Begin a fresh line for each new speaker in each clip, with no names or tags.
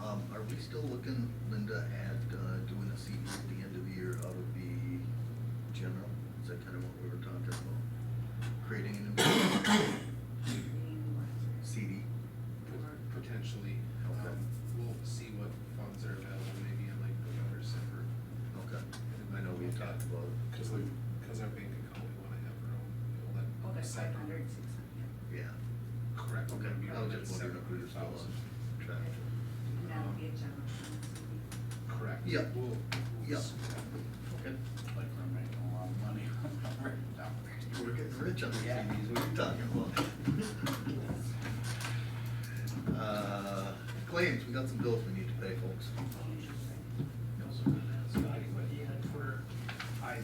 um, um,
still looking, Linda, at uh, doing a CD at the end of the year out of the general? Is that kind of what we were talking about? Creating a new
um,
CD?
Pot- Potentially.
Okay.
Um, We'll see what funds are available, maybe in like November, December.
Okay.
And
I know we talked about it.
Cause we, cause our bank account, we wanna have our own, we'll let.
Oh, that's
separate-
five hundred, six hundred.
Yeah.
Correct. we're
Okay,
gonna be
I
on
was
that
just wondering if we were still on
700,000.
track.
And that'll be a general fund CD.
Correct.
Yeah.
We'll. we'll
Yeah.
s-
Okay.
Like we're making a lot of money. No.
We're getting rich on the
Yeah.
CDs, what are you talking about? Uh, Claims, we got some bills we need to pay, folks.
Councilor Mendez, Scotty, what he had for
I,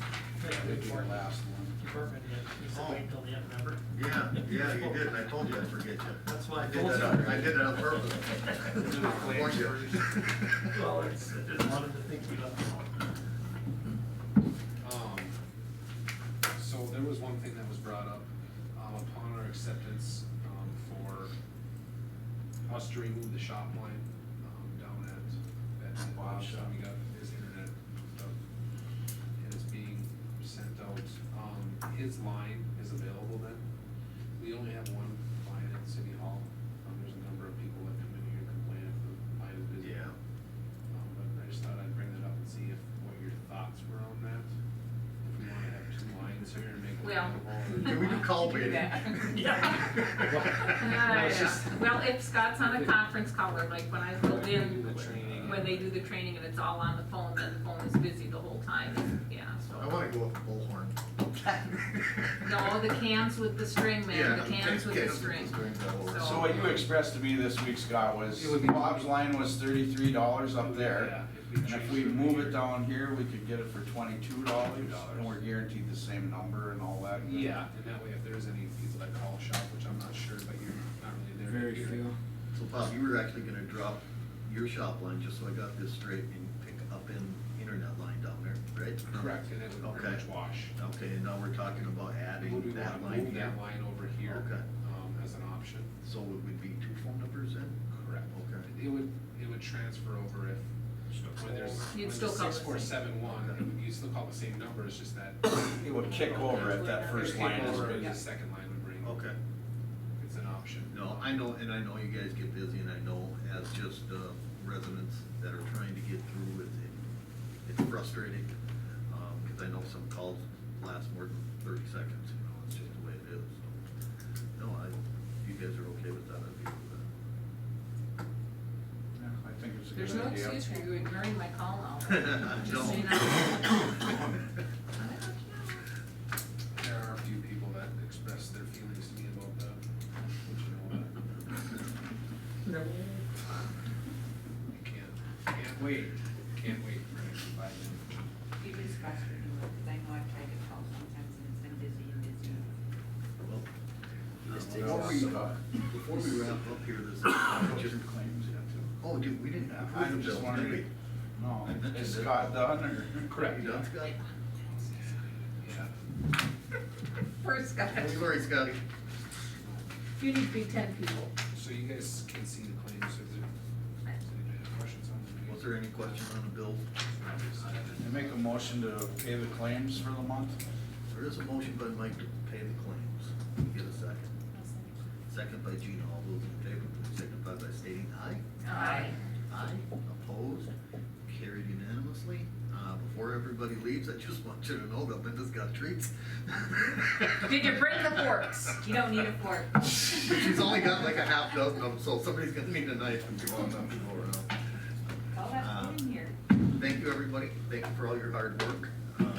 Great
that would be the
report.
last one.
department head, he said wait till the end, remember?
Yeah, yeah, you did, and I told you I'd forget you.
That's why I
I did
told
that on,
you.
I did that on purpose.
Claims
Warned you.
first.
Well, it's, I just wanted to think we left it out.
Um, so there was one thing that was brought up, um, upon our acceptance, um, for us to remove the shop line, um, down at, at Bob's shop, we got his internet stuff. And it's being sent out, um, his line is available then, we only have one line at City Hall, um, there's a number of people that come in here and complain if the line is busy.
Yeah.
Um, but I just thought I'd bring that up and see if, what your thoughts were on that. If we wanna have two lines here and make one
Well.
available.
Can we do call
Do
waiting?
that.
Yeah.
Ah,
No, it's
yeah.
just-
Well, if Scott's on a conference call, or like when I filled
When we do
in,
the training.
when they do the training and it's all on the phone, then the phone is busy the whole time, yeah, so.
I wanna go with the bullhorn.
No, the cans with the string, man,
Yeah,
the cans with the string.
that'll work.
So-
So what you expressed to me this week, Scott, was
It would be-
Bob's line was thirty-three dollars
Yeah,
up there.
if we
And if
change
we
it
move
here.
it down here, we could get it for twenty-two dollars and we're guaranteed the same number and all that. good.
Yeah, and that way if there's any people that call shop, which I'm not sure, but you're not really there.
Very
here.
few.
So Bob, you were actually gonna drop your shop line, just so I got this straight, and pick up an internet line down there, right?
Correct, and it would pretty
Okay.
much wash.
Okay, and now we're talking about
Would we
adding
wanna
that line
move
here.
that line over here?
Okay.
Um, as an option.
So it would be two phone numbers then?
Correct.
Okay.
It would, it would transfer over if, when there's,
You'd
when
still
there's
call the
six, four,
same.
seven, one, you still call the same number, it's just that. First
It would kick over if that first line is
over,
busy.
The second line would bring.
Okay.
It's an option.
No, I know, and I know you guys get busy, and I know as just uh, residents that are trying to get through, it's, it- it's frustrating. um, Cause I know some calls last more than thirty seconds, you know, it's just the way it is, so. No, I, if you guys are okay with that, I'd be okay with
Yeah, I think it's a good
There's
idea.
no excuse for you ignoring my call now.
that.
Just so you
No.
There are a few people that express their feelings to me about that, which you know, I can't, can't wait, can't wait for next five minutes.
It is frustrating, because I know I've tried to call sometimes and it's been busy and busy.
Well,
Just
uh,
take
Before we,
it off.
before we wrap up here, this, I just,
uh, Claims, yeah, too.
oh, dude, we didn't have.
I'm just wondering, no, is Scott done or?
Correct,
Done, Scott?
yeah.
First, Scott,
Sorry, Scotty.
you need to be ten people.
So you guys can see the claims, if there, if you have questions on them.
Was there any question on the bill?
uh,
I make a motion to pay the claims for the month.
There is a motion by Mike to pay the claims. Get a second. Second by Gina. All those in favor, please signify by stating aye.
Aye.
Aye. Opposed? Carried unanimously. Uh, before everybody leaves, I just want you to know that Linda's got treats.
Did you bring the forks?
You don't need a fork.
But she's only got like a half dozen of them, so somebody's gonna need a knife if you want them to go around.
All that's
Um,
good in here.
Thank you, everybody. Thank you for all your hard work um,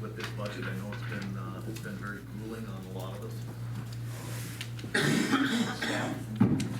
with this budget. I know it's been, uh, it's been very grueling on a lot of us. Um, Staff